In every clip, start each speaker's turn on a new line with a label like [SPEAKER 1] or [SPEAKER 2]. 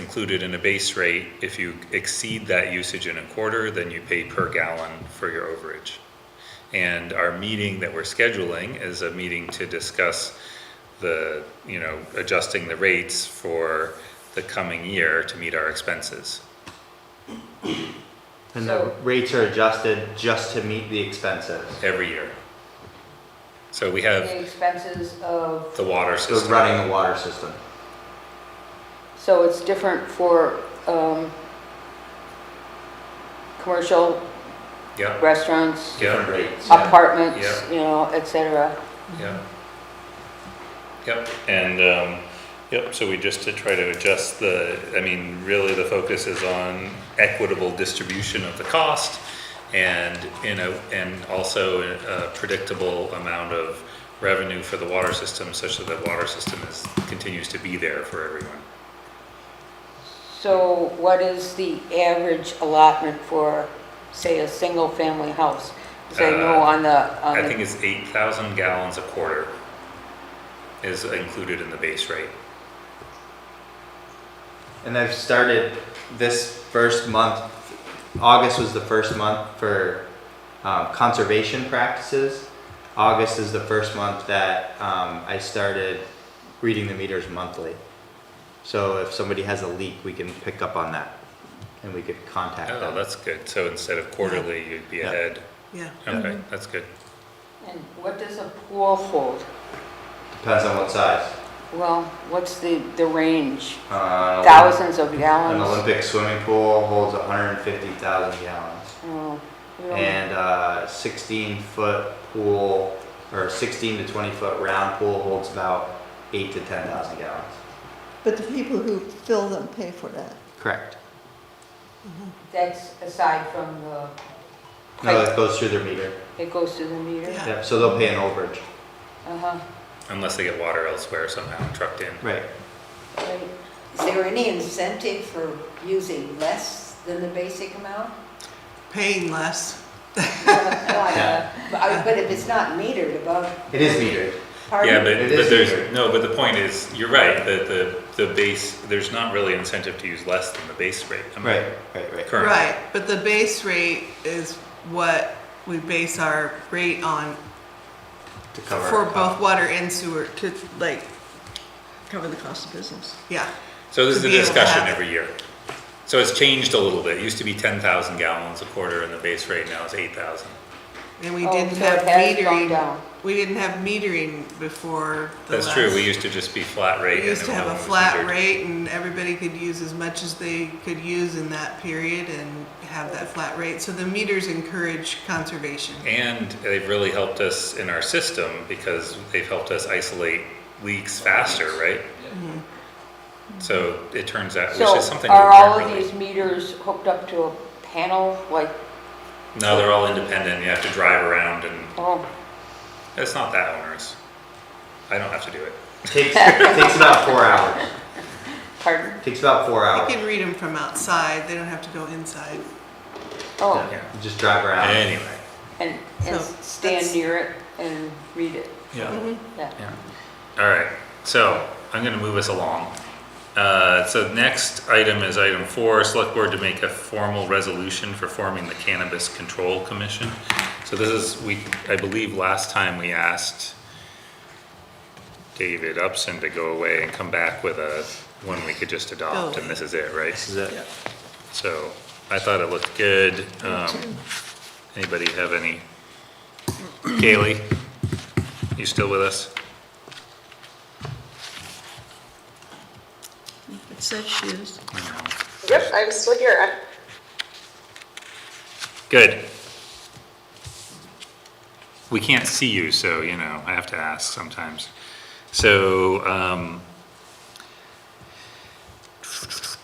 [SPEAKER 1] included in a base rate. If you exceed that usage in a quarter, then you pay per gallon for your overage. And our meeting that we're scheduling is a meeting to discuss the, you know, adjusting the rates for the coming year to meet our expenses.
[SPEAKER 2] And the rates are adjusted just to meet the expenses.
[SPEAKER 1] every year. So we have
[SPEAKER 3] The expenses of,
[SPEAKER 1] the water
[SPEAKER 2] So
[SPEAKER 1] system.
[SPEAKER 2] running the water system.
[SPEAKER 3] so it's different for, um, commercial
[SPEAKER 1] Yeah,
[SPEAKER 3] restaurants,
[SPEAKER 2] Different
[SPEAKER 1] yeah,
[SPEAKER 2] rates. yeah.
[SPEAKER 3] apartments,
[SPEAKER 1] Yeah.
[SPEAKER 3] you know, et cetera.
[SPEAKER 1] yeah. Yep, and, um, yep, so we just to try to adjust the, I mean, really the focus is on equitable distribution of the cost and, you know, and also a predictable amount of revenue for the water system such that the water system is, continues to be there for everyone.
[SPEAKER 3] So what is the average allotment for, say, a single-family house? Because I know
[SPEAKER 1] Uh,
[SPEAKER 3] on the, on
[SPEAKER 1] I
[SPEAKER 2] Um,
[SPEAKER 3] the-
[SPEAKER 1] think it's eight thousand gallons a quarter is included in the base rate.
[SPEAKER 2] And I've started this first month, August was the first month for um, conservation practices. August is the first month that um, I started reading the meters monthly. So if somebody has a leak, we can pick up on that and we could contact
[SPEAKER 1] Oh,
[SPEAKER 2] them.
[SPEAKER 1] that's good. So instead of quarterly, you'd be
[SPEAKER 2] Yeah.
[SPEAKER 1] ahead.
[SPEAKER 4] Yeah.
[SPEAKER 1] Okay, that's good.
[SPEAKER 3] and what does a pool hold?
[SPEAKER 2] Depends on what size.
[SPEAKER 3] Well, what's the, the range?
[SPEAKER 2] Uh,
[SPEAKER 3] Thousands of
[SPEAKER 2] An
[SPEAKER 3] gallons?
[SPEAKER 2] Olympic swimming pool holds 150,000 gallons.
[SPEAKER 3] Oh, you don't-
[SPEAKER 2] and a 16 foot pool or 16 to 20 foot round pool holds about eight to 10,000 gallons.
[SPEAKER 4] But the people who fill them pay for that.
[SPEAKER 2] Correct.
[SPEAKER 3] That's aside from the,
[SPEAKER 2] No, that goes through their meter.
[SPEAKER 3] it goes to the meter?
[SPEAKER 4] Yeah.
[SPEAKER 2] Yep, so they'll pay an overage.
[SPEAKER 3] Uh-huh.
[SPEAKER 1] Unless they get water elsewhere somehow trucked in.
[SPEAKER 2] Right.
[SPEAKER 3] Right.
[SPEAKER 5] Is there any incentive for using less than the basic amount?
[SPEAKER 4] Paying less.
[SPEAKER 5] No, I- But I- but if it's not metered above,
[SPEAKER 2] It is metered.
[SPEAKER 5] pardon?
[SPEAKER 1] Yeah, but,
[SPEAKER 2] It
[SPEAKER 1] but
[SPEAKER 2] is
[SPEAKER 1] there's,
[SPEAKER 2] metered.
[SPEAKER 1] no, but the point is, you're right, that the, the base, there's not really incentive to use less than the base rate. I mean,
[SPEAKER 2] Right, right, right.
[SPEAKER 1] Current.
[SPEAKER 4] Right, but the base rate is what we base our rate on
[SPEAKER 2] To cover.
[SPEAKER 4] for both water and sewer to like. Cover the cost of business. Yeah,
[SPEAKER 1] So this is
[SPEAKER 4] To
[SPEAKER 1] a
[SPEAKER 4] be able to
[SPEAKER 1] discussion
[SPEAKER 4] have-
[SPEAKER 1] every year. So it's changed a little bit. It used to be ten thousand gallons a quarter and the base rate now is eight thousand.
[SPEAKER 4] and we
[SPEAKER 3] Oh,
[SPEAKER 4] didn't
[SPEAKER 3] so
[SPEAKER 4] have
[SPEAKER 3] it has gone
[SPEAKER 4] metering.
[SPEAKER 3] down.
[SPEAKER 4] We didn't have metering before the
[SPEAKER 1] That's true. We
[SPEAKER 4] last-
[SPEAKER 1] used to just be flat rate.
[SPEAKER 4] We
[SPEAKER 1] and
[SPEAKER 4] used to
[SPEAKER 1] no
[SPEAKER 4] have
[SPEAKER 1] one
[SPEAKER 4] a
[SPEAKER 1] was
[SPEAKER 4] flat
[SPEAKER 1] injured.
[SPEAKER 4] rate and everybody could use as much as they could use in that period and have that flat rate. So the meters encourage conservation.
[SPEAKER 1] And they've really helped us in our system because they've helped us isolate leaks faster, right? So it turns out, which is
[SPEAKER 3] So
[SPEAKER 1] something we
[SPEAKER 3] are all
[SPEAKER 1] weren't
[SPEAKER 3] of
[SPEAKER 1] really.
[SPEAKER 3] these meters hooked up to a panel, like,
[SPEAKER 1] No, they're all independent. You have to drive around and
[SPEAKER 3] oh,
[SPEAKER 1] it's not that onerous. I don't have to do it.
[SPEAKER 2] Takes, takes about four hours.
[SPEAKER 3] pardon?
[SPEAKER 2] Takes about four
[SPEAKER 4] You
[SPEAKER 2] hours.
[SPEAKER 4] can read them from outside, they don't have to go inside.
[SPEAKER 3] Oh,
[SPEAKER 2] Yeah, you Just drive around.
[SPEAKER 1] Anyway.
[SPEAKER 3] and, and
[SPEAKER 4] So,
[SPEAKER 3] stand
[SPEAKER 4] that's-
[SPEAKER 3] near it and read it,
[SPEAKER 1] Yeah.
[SPEAKER 3] yeah.
[SPEAKER 1] Yeah. All right, so I'm gonna move us along. Uh, so next item is item four, select board to make a formal resolution for forming the Cannabis Control Commission. So this is, we, I believe last time we asked David Upson to go away and come back with a, one we could just adopt, and this is it, right?
[SPEAKER 2] This is it.
[SPEAKER 1] So I thought it looked good. Um, anybody have any? Kaylee, you still with us?
[SPEAKER 4] It says she is.
[SPEAKER 6] Yep, I'm still here. I'm-
[SPEAKER 1] Good. We can't see you, so, you know, I have to ask sometimes. So, um,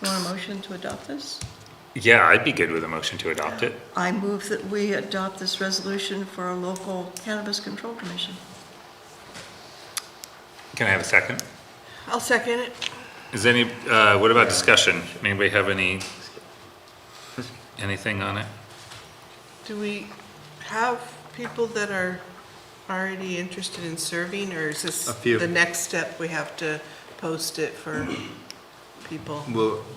[SPEAKER 7] Want a motion to adopt this?
[SPEAKER 1] yeah, I'd be good with a motion to adopt it.
[SPEAKER 7] I move that we adopt this resolution for a local cannabis control commission.
[SPEAKER 1] Can I have a second?
[SPEAKER 4] I'll second it.
[SPEAKER 1] Is any, uh, what about discussion? Anybody have any, anything on it?
[SPEAKER 4] Do we have people that are already interested in serving, or is this
[SPEAKER 2] A few.
[SPEAKER 4] the next step? We have to post it for people?
[SPEAKER 2] We'll,